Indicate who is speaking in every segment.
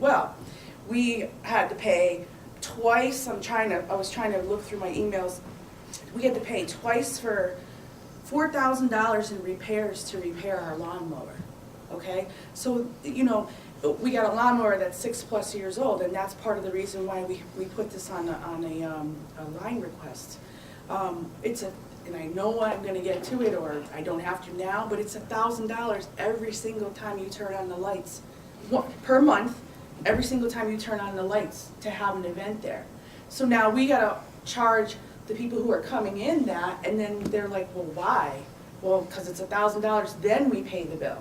Speaker 1: well. We had to pay twice, I'm trying to, I was trying to look through my emails. We had to pay twice for four thousand dollars in repairs to repair our lawnmower, okay? So, you know, we got a lawnmower that's six-plus years old, and that's part of the reason why we, we put this on a, on a, um, a line request. Um, it's a, and I know I'm gonna get to it, or I don't have to now, but it's a thousand dollars every single time you turn on the lights. One- Per month, every single time you turn on the lights to have an event there. So now we gotta charge the people who are coming in that, and then they're like, well, why? Well, because it's a thousand dollars, then we pay the bill.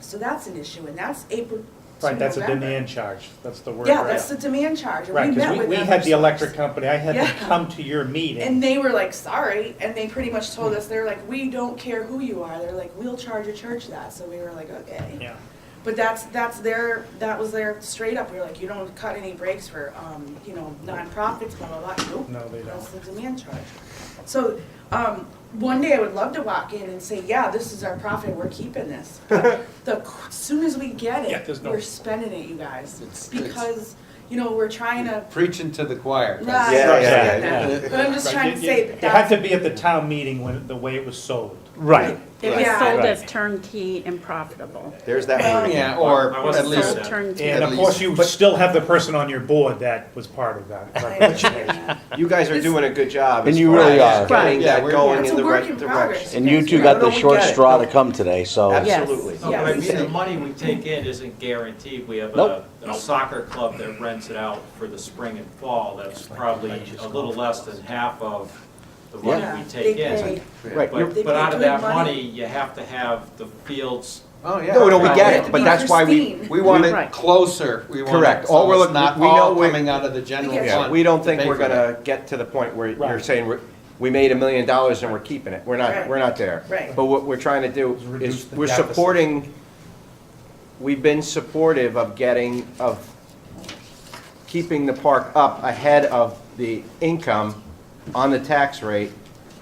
Speaker 1: So that's an issue, and that's April to
Speaker 2: Right, that's a
Speaker 1: November.
Speaker 2: demand charge, that's the word.
Speaker 1: Yeah,
Speaker 2: right.
Speaker 1: that's the demand charge, and
Speaker 2: Right,
Speaker 1: we met
Speaker 2: because we,
Speaker 1: with
Speaker 2: we
Speaker 1: them
Speaker 2: had the
Speaker 1: ourselves.
Speaker 2: electric company, I had
Speaker 1: Yeah.
Speaker 2: them come to your meeting.
Speaker 1: And they were like, sorry, and they pretty much told us, they're like, we don't care who you are, they're like, we'll charge a church that, so we were like, okay.
Speaker 2: Yeah,
Speaker 1: But that's, that's their, that was their straight up, we were like, you don't cut any breaks for, um, you know, nonprofits, blah, blah, blah, nope.
Speaker 2: no, they
Speaker 1: That's
Speaker 2: don't.
Speaker 1: the demand charge. So, um, one day I would love to walk in and say, yeah, this is our profit, we're keeping this. But The, qu- soon as we get
Speaker 2: Yeah,
Speaker 1: it,
Speaker 2: there's no-
Speaker 1: we're spending it, you guys,
Speaker 3: It's- it's-
Speaker 1: because, you know, we're trying to,
Speaker 3: Preaching to the choir.
Speaker 1: Right.
Speaker 4: Yeah,
Speaker 2: yeah,
Speaker 1: but I'm just
Speaker 2: Right,
Speaker 1: trying to
Speaker 2: you- you-
Speaker 1: say that
Speaker 2: It had
Speaker 1: that's.
Speaker 2: to be at the town meeting when, the way it was sold.
Speaker 4: Right,
Speaker 5: It was
Speaker 1: Yeah.
Speaker 5: sold
Speaker 4: Right.
Speaker 5: as turnkey and profitable.
Speaker 4: there's that word again.
Speaker 3: Yeah, or
Speaker 6: I
Speaker 3: at
Speaker 6: wasn't
Speaker 5: Sold
Speaker 3: least,
Speaker 6: that.
Speaker 5: turnkey.
Speaker 2: And
Speaker 3: At
Speaker 2: of course,
Speaker 3: least.
Speaker 2: you still have the person on your board that was part of that.
Speaker 1: I
Speaker 2: representation.
Speaker 1: understand.
Speaker 4: You guys are doing a good job.
Speaker 7: And
Speaker 4: as
Speaker 7: you
Speaker 4: far
Speaker 7: really
Speaker 4: as
Speaker 7: are.
Speaker 4: Getting
Speaker 3: Yeah,
Speaker 4: that
Speaker 3: we're-
Speaker 4: going
Speaker 1: It's
Speaker 4: in
Speaker 1: a
Speaker 4: the
Speaker 1: work
Speaker 4: right
Speaker 1: in
Speaker 4: direction.
Speaker 1: progress.
Speaker 7: And you two
Speaker 4: No,
Speaker 7: got
Speaker 4: no,
Speaker 7: the
Speaker 4: we
Speaker 7: short
Speaker 4: get it.
Speaker 7: straw to come today, so.
Speaker 5: Yes.
Speaker 4: Absolutely.
Speaker 6: No, but
Speaker 1: Yeah,
Speaker 6: I
Speaker 1: we
Speaker 6: mean, the
Speaker 1: said-
Speaker 6: money we take in isn't guaranteed. We have
Speaker 7: Nope.
Speaker 6: a, a soccer club that rents it out for the spring and fall. That's probably a little less than half of the
Speaker 1: Yeah,
Speaker 6: money we take
Speaker 1: they pay.
Speaker 6: in.
Speaker 7: Right, you're-
Speaker 6: But,
Speaker 1: They
Speaker 6: but
Speaker 1: pay
Speaker 6: out of
Speaker 1: good
Speaker 6: that
Speaker 1: money.
Speaker 6: money, you have to have the fields
Speaker 3: oh, yeah.
Speaker 4: No, no, we
Speaker 6: Right.
Speaker 1: It
Speaker 4: get
Speaker 1: had
Speaker 4: it.
Speaker 1: to
Speaker 4: but
Speaker 1: be
Speaker 4: that's why we,
Speaker 1: pristine.
Speaker 4: we want it,
Speaker 5: Right.
Speaker 3: Closer, we want. it,
Speaker 4: Correct. All
Speaker 3: so
Speaker 4: we're
Speaker 3: it's
Speaker 4: looking-
Speaker 3: Not
Speaker 4: we know
Speaker 3: all
Speaker 4: we're-
Speaker 3: coming out of the general
Speaker 1: Yeah.
Speaker 3: fund.
Speaker 4: we don't
Speaker 3: to
Speaker 4: think
Speaker 3: pay
Speaker 4: we're
Speaker 3: for that.
Speaker 4: gonna get to the point where you're
Speaker 2: Right.
Speaker 4: saying, we're- we made a million dollars and we're keeping it. We're
Speaker 1: Right.
Speaker 4: not, we're not there.
Speaker 1: Right.
Speaker 4: But what we're trying to do
Speaker 2: Reduce
Speaker 4: is,
Speaker 2: the
Speaker 4: we're
Speaker 2: deficit.
Speaker 4: supporting, we've been supportive of getting, of keeping the park up ahead of the income on the tax rate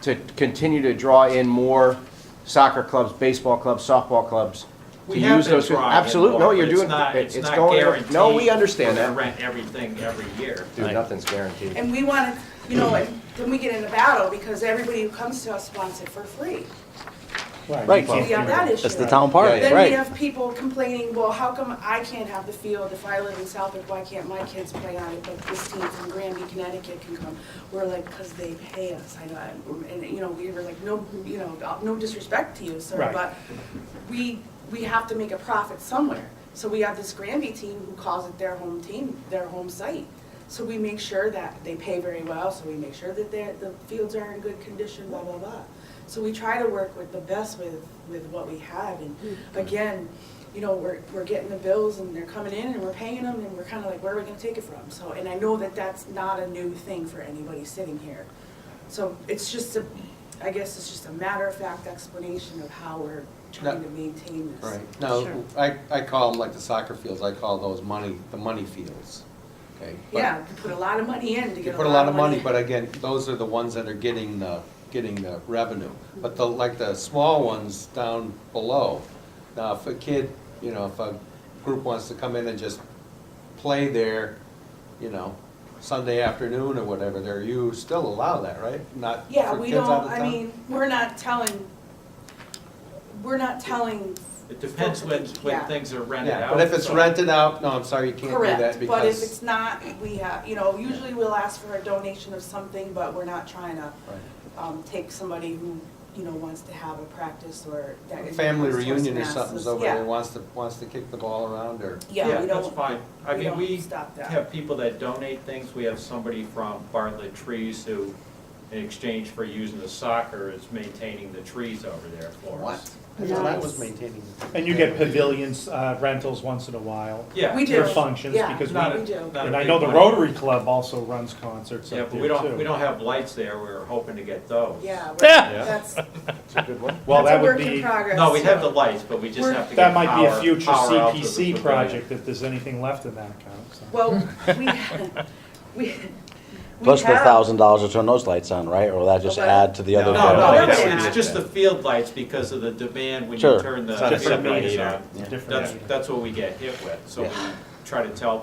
Speaker 4: to continue to draw in more soccer clubs, baseball clubs, softball clubs. to
Speaker 6: We have
Speaker 4: use
Speaker 6: been
Speaker 4: those-
Speaker 6: drawing in
Speaker 4: Absolute, no,
Speaker 6: more,
Speaker 4: you're
Speaker 6: but it's
Speaker 4: doing,
Speaker 6: not-
Speaker 4: it- it's
Speaker 6: not
Speaker 4: going, no, we
Speaker 6: guaranteed
Speaker 4: understand
Speaker 6: we're gonna
Speaker 4: that.
Speaker 6: Rent everything every year.
Speaker 4: Dude, nothing's guaranteed.
Speaker 1: And we want to, you know, and then we get in a battle because everybody who comes to us wants it for free.
Speaker 2: you
Speaker 7: Right.
Speaker 2: can't
Speaker 1: We have that
Speaker 2: do
Speaker 1: issue.
Speaker 7: That's the town park,
Speaker 4: Yeah, yeah.
Speaker 1: Then we
Speaker 7: right?
Speaker 1: have people complaining, well, how come I can't have the field if I live in Southwick? Why can't my kids play on it, but this team from Granby, Connecticut can come? We're like, because they pay us. I know, I'm- and, you know, we were like, no, you know, no disrespect to you, sir,
Speaker 2: Right.
Speaker 1: but we, we have to make a profit somewhere. So we have this Granby team who calls it their home team, their home site. So we make sure that they pay very well, so we make sure that they're- the fields are in good condition, blah, blah, blah. So we try to work with the best with, with what we have, and again, you know, we're, we're getting the bills and they're coming in and we're paying them, and we're kinda like, where are we gonna take it from? So, and I know that that's not a new thing for anybody sitting here. So it's just a, I guess it's just a matter of fact explanation of how we're trying
Speaker 3: No.
Speaker 1: to maintain this.
Speaker 3: Right, no,
Speaker 5: Sure.
Speaker 3: I, I call them like the soccer fields, I call those money, the money fields, okay? But
Speaker 1: Yeah, you put a lot of money in to
Speaker 3: You
Speaker 1: get
Speaker 3: put a lot of money, but again, those are the ones that are getting the, getting the revenue. But the, like the small ones down below, now if a kid, you know, if a group wants to come in and just play there, you know, Sunday afternoon or whatever, there, you still allow that, right? Not for kids
Speaker 1: Yeah,
Speaker 3: out of town?
Speaker 1: we don't, I mean, we're not telling, we're not telling,
Speaker 6: It depends when,
Speaker 1: Yeah.
Speaker 6: when things are rented
Speaker 3: Yeah,
Speaker 6: out.
Speaker 3: but if it's
Speaker 6: so-
Speaker 3: rented out, no, I'm sorry, you can't do that
Speaker 1: correct, but if
Speaker 3: because.
Speaker 1: it's not, we have, you know, usually we'll ask for a donation of something, but we're not trying to, um, take somebody who, you know, wants to have a practice or that.
Speaker 3: Right.
Speaker 1: is-
Speaker 3: Family
Speaker 1: wants to
Speaker 3: reunion or
Speaker 1: masses.
Speaker 3: something's over
Speaker 1: Yeah.
Speaker 3: there, wants to, wants to kick the ball around or.
Speaker 1: Yeah, we
Speaker 6: that's
Speaker 1: don't,
Speaker 6: fine. I
Speaker 1: we
Speaker 6: mean,
Speaker 1: don't
Speaker 6: we
Speaker 1: stop that.
Speaker 6: have people that donate things. We have somebody from Bartlett Trees who, in exchange for using the soccer, is maintaining the trees over there for
Speaker 3: What?
Speaker 6: us.
Speaker 3: I thought I was
Speaker 5: Nice.
Speaker 3: maintaining.
Speaker 2: And you get pavilions uh, rentals once in a while.
Speaker 6: Yeah.
Speaker 1: We do.
Speaker 2: For functions,
Speaker 1: Yeah.
Speaker 2: because we,
Speaker 6: Not a-
Speaker 1: we do.
Speaker 6: not a
Speaker 2: and I
Speaker 6: big
Speaker 2: know the
Speaker 6: money.
Speaker 2: Rotary Club also runs concerts
Speaker 6: Yeah,
Speaker 2: up
Speaker 6: but
Speaker 2: there
Speaker 6: we don't, we
Speaker 2: too.
Speaker 6: don't have lights there. We were hoping to get those.
Speaker 1: yeah, we're-
Speaker 7: Yeah.
Speaker 1: that's,
Speaker 4: It's a good one.
Speaker 2: Well,
Speaker 1: that's
Speaker 2: that
Speaker 1: a
Speaker 2: would
Speaker 1: work in
Speaker 2: be,
Speaker 1: progress.
Speaker 6: No, we have the
Speaker 1: so-
Speaker 6: lights, but we just
Speaker 1: We're-
Speaker 6: have to
Speaker 2: that
Speaker 6: get
Speaker 2: might be a
Speaker 6: power-
Speaker 2: future
Speaker 6: power out to the
Speaker 2: CPC
Speaker 6: pavilion.
Speaker 2: project if there's anything left in that account, so.
Speaker 1: Well, we, we. we
Speaker 7: Plus the
Speaker 1: have-
Speaker 7: thousand dollars to turn those lights on, right? Or will that just
Speaker 1: Okay.
Speaker 7: add to the other?
Speaker 3: No,
Speaker 6: No,
Speaker 1: Oh,
Speaker 6: no,
Speaker 1: that's
Speaker 6: it's,
Speaker 1: an
Speaker 6: it's
Speaker 1: ad.
Speaker 6: just the field lights because of the demand when you
Speaker 7: Sure.
Speaker 6: turn the
Speaker 4: It's not a
Speaker 6: field
Speaker 2: Different
Speaker 6: lights
Speaker 2: meter,
Speaker 6: on.
Speaker 2: different
Speaker 6: That's,
Speaker 2: meter.
Speaker 6: that's what we get hit with, so we try to tell